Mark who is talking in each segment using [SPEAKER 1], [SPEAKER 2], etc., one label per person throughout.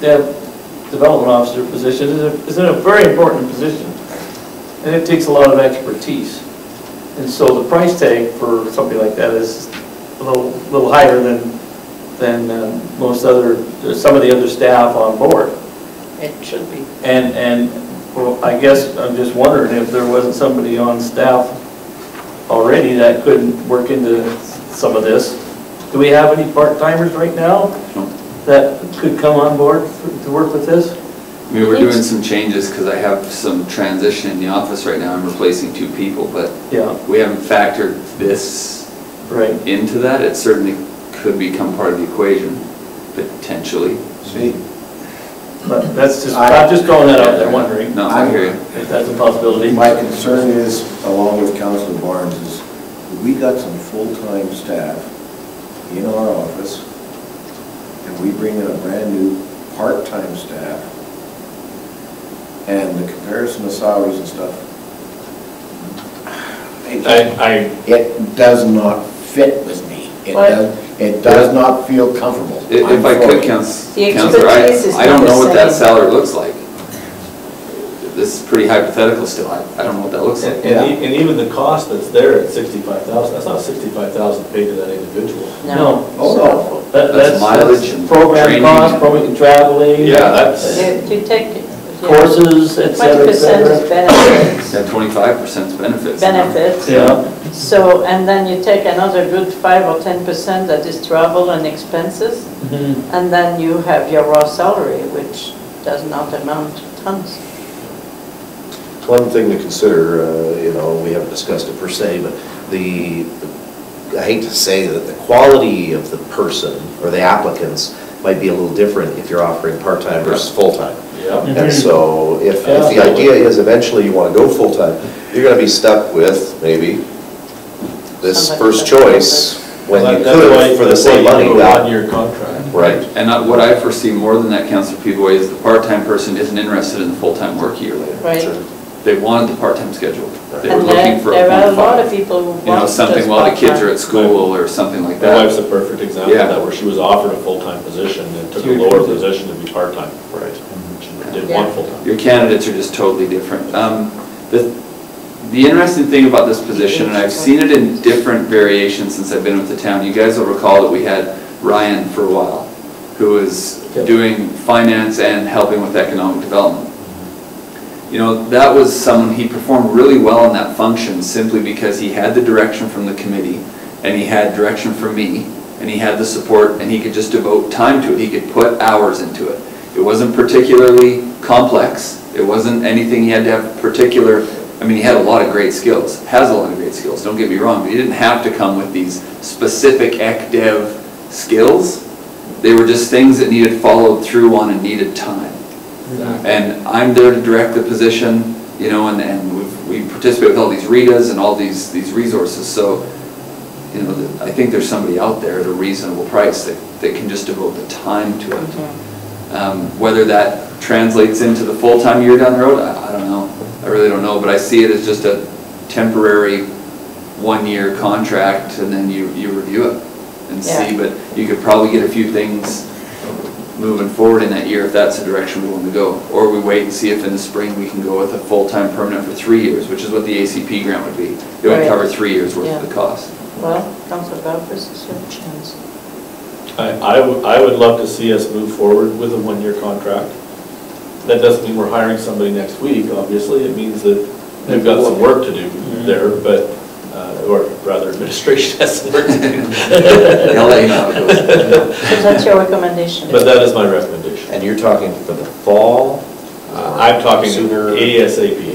[SPEAKER 1] dev development officer position is a, is a very important position, and it takes a lot of expertise. And so the price tag for something like that is a little, little higher than, than uh, most other, some of the other staff on board.
[SPEAKER 2] It should be.
[SPEAKER 1] And, and, well, I guess I'm just wondering if there wasn't somebody on staff already that couldn't work into some of this. Do we have any part-timers right now
[SPEAKER 3] No.
[SPEAKER 1] that could come on board for- to work with this?
[SPEAKER 3] We were doing some changes because I have some transition in the office right now. I'm replacing two people, but
[SPEAKER 1] Yeah,
[SPEAKER 3] we haven't factored this
[SPEAKER 1] right.
[SPEAKER 3] into that. It certainly could become part of the equation, potentially.
[SPEAKER 4] See,
[SPEAKER 1] But that's just, I'm just throwing that out there, wondering
[SPEAKER 3] No, I hear you.
[SPEAKER 1] if that's a possibility.
[SPEAKER 4] my concern is, along with Councilor Barnes, is we got some full-time staff in our office, and we bring in a brand-new part-time staff, and the comparison of salaries and stuff, it-
[SPEAKER 5] I, I,
[SPEAKER 4] it does not fit with me. It
[SPEAKER 2] What?
[SPEAKER 4] does, it does not feel comfortable.
[SPEAKER 3] I- If I
[SPEAKER 4] I'm for
[SPEAKER 3] could,
[SPEAKER 4] it.
[SPEAKER 3] Couns-
[SPEAKER 2] The
[SPEAKER 3] Counselor, I,
[SPEAKER 2] expertise is
[SPEAKER 3] I don't
[SPEAKER 2] not
[SPEAKER 3] know
[SPEAKER 2] the
[SPEAKER 3] what that
[SPEAKER 2] same.
[SPEAKER 3] salary looks like. This is pretty hypothetical still. I, I don't know what that looks
[SPEAKER 5] and,
[SPEAKER 3] like.
[SPEAKER 4] Yeah.
[SPEAKER 5] and e- and even the cost that's there at sixty-five thousand, that's not sixty-five thousand paid to that individual.
[SPEAKER 1] No.
[SPEAKER 4] Oh, no.
[SPEAKER 1] That-
[SPEAKER 3] That's mileage and
[SPEAKER 1] Program
[SPEAKER 3] training.
[SPEAKER 1] cost, program traveling.
[SPEAKER 3] Yeah, that's-
[SPEAKER 2] If you take. yeah.
[SPEAKER 1] Courses, et
[SPEAKER 2] Twenty
[SPEAKER 1] cetera, et
[SPEAKER 2] percent
[SPEAKER 1] cetera.
[SPEAKER 2] is benefits,
[SPEAKER 3] That twenty-five percent benefits. you know?
[SPEAKER 2] benefits.
[SPEAKER 1] Yeah.
[SPEAKER 2] So, and then you take another good five or ten percent that is travel and expenses,
[SPEAKER 1] Mhm.
[SPEAKER 2] and then you have your raw salary, which does not amount to tons.
[SPEAKER 6] One thing to consider, uh, you know, we haven't discussed it per se, but the, I hate to say that the quality of the person or the applicants might be a little different if you're offering part-time versus full-time.
[SPEAKER 5] Yeah.
[SPEAKER 6] And so if, if the idea is eventually you want to go full-time, you're going to be stuck with maybe this
[SPEAKER 2] Somebody that's-
[SPEAKER 6] first choice when
[SPEAKER 5] Well,
[SPEAKER 6] you
[SPEAKER 5] that's why-
[SPEAKER 6] could for the
[SPEAKER 5] that's why
[SPEAKER 6] same
[SPEAKER 5] you
[SPEAKER 6] money
[SPEAKER 5] do a
[SPEAKER 6] without.
[SPEAKER 5] One-year contract.
[SPEAKER 6] Right.
[SPEAKER 3] And I- what I foresee more than that, Counselor Pivoy, is the part-time person isn't interested in the full-time work a year later.
[SPEAKER 2] Right.
[SPEAKER 6] Sure.
[SPEAKER 3] They wanted the part-time schedule. They were
[SPEAKER 2] And there-
[SPEAKER 3] looking for a
[SPEAKER 2] there are a
[SPEAKER 3] point
[SPEAKER 2] lot of
[SPEAKER 3] five.
[SPEAKER 2] people who want
[SPEAKER 3] You know, something
[SPEAKER 2] just
[SPEAKER 3] while the kids
[SPEAKER 2] part-time.
[SPEAKER 3] are at school or something like
[SPEAKER 5] My wife's a
[SPEAKER 3] that.
[SPEAKER 5] perfect example of
[SPEAKER 3] Yeah.
[SPEAKER 5] that, where she was offered a full-time position and took a
[SPEAKER 1] Huge
[SPEAKER 5] lower
[SPEAKER 1] position.
[SPEAKER 5] position to be part-time. Right. She did
[SPEAKER 2] Yeah.
[SPEAKER 5] one full-time.
[SPEAKER 3] Your candidates are just totally different. Um, The, the interesting thing about this position, and I've seen it in different variations since I've been with the town, you guys will recall that we had Ryan for a while, who was
[SPEAKER 1] Yep.
[SPEAKER 3] doing finance and helping with economic development. You know, that was someone, he performed really well in that function simply because he had the direction from the committee and he had direction from me and he had the support and he could just devote time to it. He could put hours into it. It wasn't particularly complex. It wasn't anything he had to have particular, I mean, he had a lot of great skills, has a lot of great skills, don't get me wrong, but he didn't have to come with these specific ec dev skills. They were just things that needed followed through on and needed time. And I'm there to direct the position, you know, and, and we've- we participate with all these RITAs and all these, these resources, so, you know, the- I think there's somebody out there at a reasonable price that, that can just devote the time to
[SPEAKER 2] Mm-hmm.
[SPEAKER 3] it. Um, Whether that translates into the full-time year down the road, I, I don't know, I really don't know, but I see it as just a temporary, one-year contract, and then you, you review it and see,
[SPEAKER 2] Yeah.
[SPEAKER 3] but you could probably get a few things moving forward in that year if that's the direction we want to go. Or we wait and see if in the spring we can go with a full-time permanent for three years, which is what the ACP grant would be. It would
[SPEAKER 2] Right.
[SPEAKER 3] cover three years worth of
[SPEAKER 2] Yeah.
[SPEAKER 3] the cost.
[SPEAKER 2] Well, Council Barfus is your chance.
[SPEAKER 5] I, I would, I would love to see us move forward with a one-year contract. That doesn't mean we're hiring somebody next week, obviously, it means that they've got some work to do there, but, uh, or rather administration has some work to do.
[SPEAKER 3] They'll let you know how it goes.
[SPEAKER 2] So that's your recommendation.
[SPEAKER 5] But that is my recommendation.
[SPEAKER 6] And you're talking for the fall?
[SPEAKER 5] Uh, I'm talking
[SPEAKER 6] Sooner-
[SPEAKER 5] ASAP.
[SPEAKER 6] ASAP.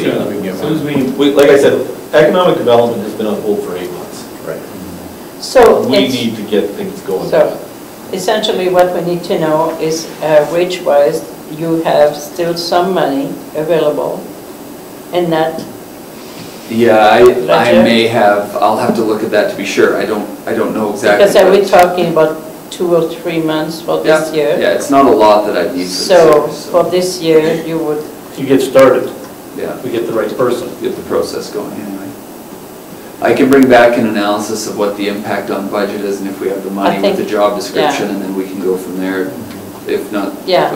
[SPEAKER 5] Yeah, we can
[SPEAKER 1] As soon as
[SPEAKER 5] get
[SPEAKER 1] we
[SPEAKER 5] one. We- Like I said, economic development has been on hold for eight months.
[SPEAKER 6] Right.
[SPEAKER 2] So
[SPEAKER 5] We
[SPEAKER 2] it's-
[SPEAKER 5] need to get things going.
[SPEAKER 2] So essentially, what we need to know is uh, wage-wise, you have still some money available in that,
[SPEAKER 3] Yeah, I, I
[SPEAKER 2] Gotcha.
[SPEAKER 3] may have, I'll have to look at that to be sure. I don't, I don't know exactly.
[SPEAKER 2] because are we
[SPEAKER 3] what-
[SPEAKER 2] talking about two or three months for
[SPEAKER 3] Yeah,
[SPEAKER 2] this year?
[SPEAKER 3] Yeah, it's not a lot that I need for this
[SPEAKER 2] So
[SPEAKER 3] year,
[SPEAKER 2] for
[SPEAKER 3] so,
[SPEAKER 2] this year, you would,
[SPEAKER 1] You get started,
[SPEAKER 3] yeah.
[SPEAKER 1] we get the right person.
[SPEAKER 3] get the process going anyway. I can bring back an analysis of what the impact on budget is and if we have the money
[SPEAKER 2] I
[SPEAKER 3] with the
[SPEAKER 2] think-
[SPEAKER 3] job description,
[SPEAKER 2] yeah.
[SPEAKER 3] and then we can go from there.
[SPEAKER 7] if not
[SPEAKER 3] Yeah.